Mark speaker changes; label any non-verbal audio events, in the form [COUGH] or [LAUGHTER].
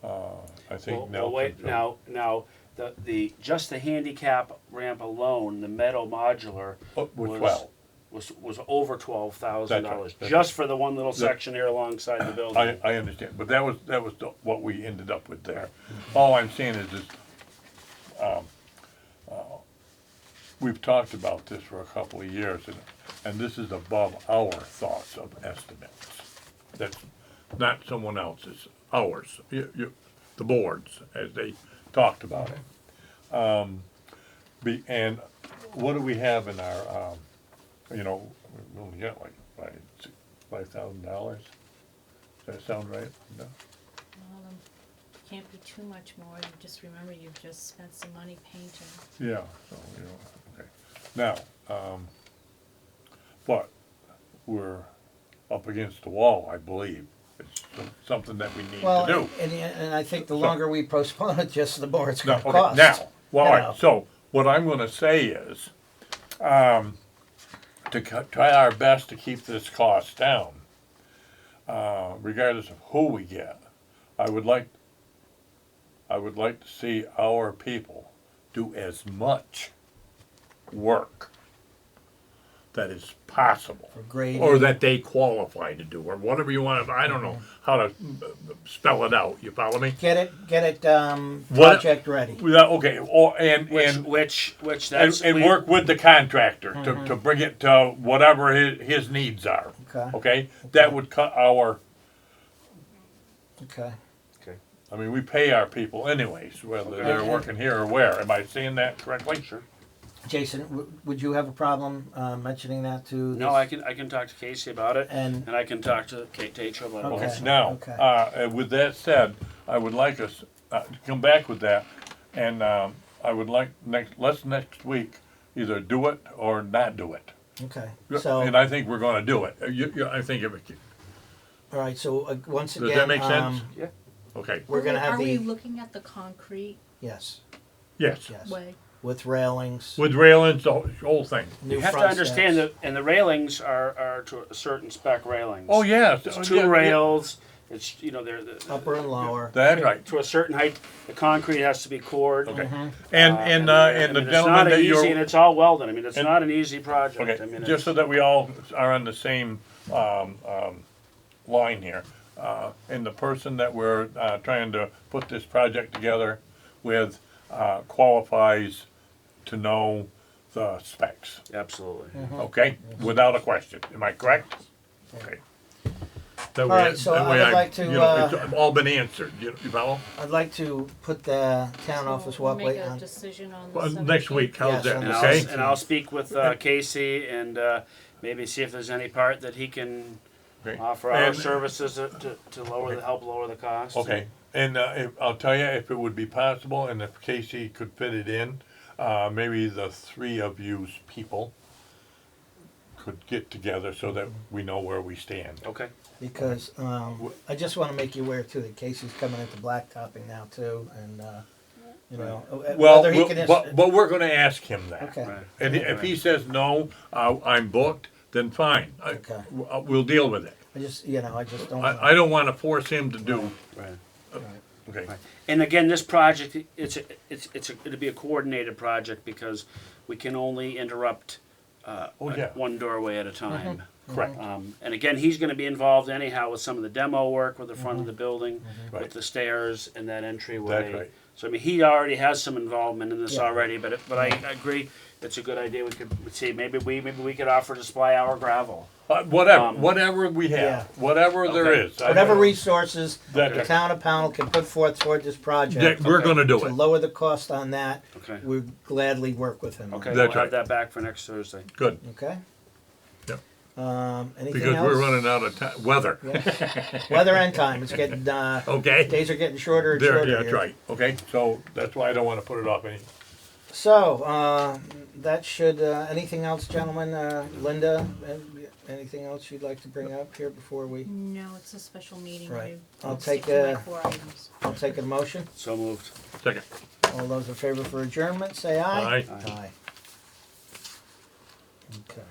Speaker 1: Uh, think
Speaker 2: Well,
Speaker 1: now
Speaker 2: well, wait,
Speaker 1: can jump.
Speaker 2: Now, now, the, the, just the handicap ramp alone, the metal modular.
Speaker 1: Oh, was
Speaker 2: was-
Speaker 1: 12.
Speaker 2: Was, was over twelve thousand dollars,
Speaker 1: That's right.
Speaker 2: just for the one little section here alongside the building.
Speaker 1: I, I understand, but that was, that was the- what we ended up with there. All I'm saying is, is, um, uh, we've talked about this for a couple of years, and, and this is above our thoughts of estimates. That's not someone else's, ours, you, you, the boards, as they talked about it. Um, be, and what do we have in our, um, you know, we only got like, like, five thousand dollars? Does that sound right? No?
Speaker 3: Well, um, can't be too much more, you just remember you've just spent some money painting.
Speaker 1: Yeah, so, you know, okay. Now, um, but we're up against the wall, I believe. It's some- something that we need to
Speaker 4: Well,
Speaker 1: do.
Speaker 4: and, and I think the longer we postpone it, just the more it's
Speaker 1: Now,
Speaker 4: gonna
Speaker 1: okay,
Speaker 4: cost.
Speaker 1: now, well, all
Speaker 4: Now.
Speaker 1: right, so what I'm gonna say is, um, to co- try our best to keep this cost down, uh, regardless of who we get, I would like, I would like to see our people do as much work that is possible.
Speaker 4: For grading.
Speaker 1: Or that they qualify to do, or whatever you want, I don't know
Speaker 4: Mm-hmm.
Speaker 1: how to mm, spell it out, you follow me?
Speaker 4: Get it, get it, um,
Speaker 1: What-
Speaker 4: project ready.
Speaker 1: Yeah, okay, or, and,
Speaker 2: Which,
Speaker 1: and,
Speaker 2: which, which
Speaker 1: and,
Speaker 2: that's.
Speaker 1: and
Speaker 2: we-
Speaker 1: work with the contractor to, to bring it to whatever his, his needs are.
Speaker 4: Okay.
Speaker 1: Okay, that would cut our,
Speaker 4: Okay.
Speaker 1: I mean, we pay our people anyways, whether they're
Speaker 4: Okay.
Speaker 1: working here or where, am I saying that correctly? Sure.
Speaker 4: Jason, w- would you have a problem, uh, mentioning that to?
Speaker 2: No,
Speaker 4: this-
Speaker 2: I can, I can talk to Casey about it,
Speaker 4: And-
Speaker 2: and I can talk to Kate Tatro about
Speaker 4: Okay.
Speaker 2: it.
Speaker 1: Now,
Speaker 4: okay.
Speaker 1: uh, with that said, I would like us, uh, to come back with that, and, um, I would like next, let's next week either do it or not do it.
Speaker 4: Okay, so,
Speaker 1: And I think we're gonna do it, Uh, you, you, I think if it,
Speaker 4: all right, so, uh, once
Speaker 1: does that
Speaker 4: again,
Speaker 1: make sense?
Speaker 4: um,
Speaker 2: Yeah.
Speaker 1: Okay,
Speaker 4: we're gonna have
Speaker 3: Are we
Speaker 4: the,
Speaker 3: looking at the concrete
Speaker 4: yes,
Speaker 1: yes.
Speaker 4: yes,
Speaker 3: way?
Speaker 4: with railings,
Speaker 1: With railings, the whole- whole thing.
Speaker 4: new
Speaker 2: You have to
Speaker 4: front
Speaker 2: understand
Speaker 4: steps.
Speaker 2: that, and the railings are, are to a certain spec railings.
Speaker 1: Oh, yes.
Speaker 2: It's two rails, it's, you know, they're, they're-
Speaker 4: Upper and lower.
Speaker 1: That's right.
Speaker 2: to a certain height, the concrete has to be poured.
Speaker 1: Okay. And,
Speaker 2: Uh,
Speaker 1: and,
Speaker 2: I
Speaker 1: uh,
Speaker 2: mean,
Speaker 1: and the
Speaker 2: it's not
Speaker 1: gentleman
Speaker 2: an
Speaker 1: that you're.
Speaker 2: easy- And it's all welded, I mean, it's
Speaker 1: And-
Speaker 2: not an easy project, I
Speaker 1: Okay,
Speaker 2: mean,
Speaker 1: just so
Speaker 2: it's,
Speaker 1: that we all are on the same, um, um, line here. Uh, and the person that we're, uh, trying to put this project together with, uh, qualifies to know the specs,
Speaker 2: absolutely.
Speaker 1: okay? Without a question, am I correct? Okay. That way,
Speaker 4: right, so
Speaker 1: that
Speaker 4: I
Speaker 1: way
Speaker 4: would like to,
Speaker 1: you know,
Speaker 4: uh,
Speaker 1: it's all been answered, you you follow?
Speaker 4: I'd like to put the town
Speaker 3: So
Speaker 4: office
Speaker 3: we'll make
Speaker 4: walkway
Speaker 3: a
Speaker 4: on,
Speaker 3: decision on the
Speaker 1: Well, next
Speaker 3: 17th.
Speaker 1: week, how's
Speaker 4: Yes,
Speaker 1: that,
Speaker 4: on
Speaker 2: And
Speaker 4: the
Speaker 1: okay?
Speaker 2: I'll, and I'll speak with uh, Casey and uh, maybe see if there's any part that he can
Speaker 1: Okay.
Speaker 2: offer our
Speaker 1: And-
Speaker 2: services to, to lower the, help lower the cost.
Speaker 1: Okay, and uh, if, I'll tell you, if it would be possible, and if Casey could fit it in, uh, maybe the three of you's people could get together so that we know where we stand.
Speaker 2: Okay,
Speaker 4: because, um, I just wanna make you aware too, that Casey's coming into blacktopping now too, and, uh, you know, uh,
Speaker 1: Well,
Speaker 4: whether he
Speaker 1: we'll-
Speaker 4: can. ins-
Speaker 1: but, but we're gonna ask him that.
Speaker 4: Okay.
Speaker 2: right.
Speaker 1: And i- if he says, no, uh, I'm booked, then fine, I-
Speaker 4: Okay.
Speaker 1: w- uh, we'll deal with it.
Speaker 4: I just, you know, I just don't.
Speaker 1: I, I don't wanna force him to do,
Speaker 2: Right.
Speaker 1: okay,
Speaker 2: And again, this project, it's, a- it's, it's, a- it'll be a coordinated project because we can only interrupt uh,
Speaker 1: Oh,
Speaker 2: a-
Speaker 1: yeah. Mm-hmm.
Speaker 2: one doorway at a time.
Speaker 1: correct.
Speaker 2: Um, And again, he's gonna be involved anyhow with some of the demo work with the front of the building,
Speaker 1: Right.
Speaker 2: with the stairs and that entryway.
Speaker 1: That's right.
Speaker 2: So I mean, he already has some involvement in this
Speaker 4: Yeah.
Speaker 2: already, but, it- but I I agree, it's a good idea, we could, we'd see, maybe we, maybe we could offer to supply our gravel.
Speaker 1: Uh, Whatever,
Speaker 2: Um,
Speaker 1: whatever we
Speaker 4: Yeah.
Speaker 1: have, whatever there
Speaker 2: Okay.
Speaker 1: is. I-
Speaker 4: Whatever resources
Speaker 1: That-
Speaker 4: the town of Pownell can put forth toward this
Speaker 1: that
Speaker 4: project.
Speaker 1: We're
Speaker 2: Okay.
Speaker 1: gonna do
Speaker 4: To
Speaker 1: it.
Speaker 4: lower the cost on that,
Speaker 2: Okay.
Speaker 4: we gladly work with him. on
Speaker 2: Okay,
Speaker 4: it.
Speaker 1: That's
Speaker 2: we'll have
Speaker 1: right.
Speaker 2: that back for next Thursday.
Speaker 1: Good,
Speaker 4: Okay?
Speaker 1: Yep.
Speaker 4: Um, anything else?
Speaker 1: because we're running out of ti- weather,
Speaker 4: Yeah. Weather and time, it's
Speaker 1: [LAUGHS]
Speaker 4: getting, uh,
Speaker 1: okay?
Speaker 4: days are getting shorter and
Speaker 1: Oh. There,
Speaker 4: shorter
Speaker 1: yeah, that's
Speaker 4: here.
Speaker 1: right, okay, so that's why I don't wanna put it off any,
Speaker 4: So, uh, that should, uh, anything else, gentlemen, uh, Linda, an- anything else you'd like to bring up here before we,
Speaker 3: No, it's a special meeting.
Speaker 4: Right.
Speaker 3: I'm
Speaker 4: I'll take
Speaker 3: sticking to my
Speaker 4: a-
Speaker 3: four items.
Speaker 4: I'll take a motion?
Speaker 2: So moved.
Speaker 1: second,
Speaker 4: All those in favor for adjournment, say aye.
Speaker 1: Aye.
Speaker 4: Aye. Okay.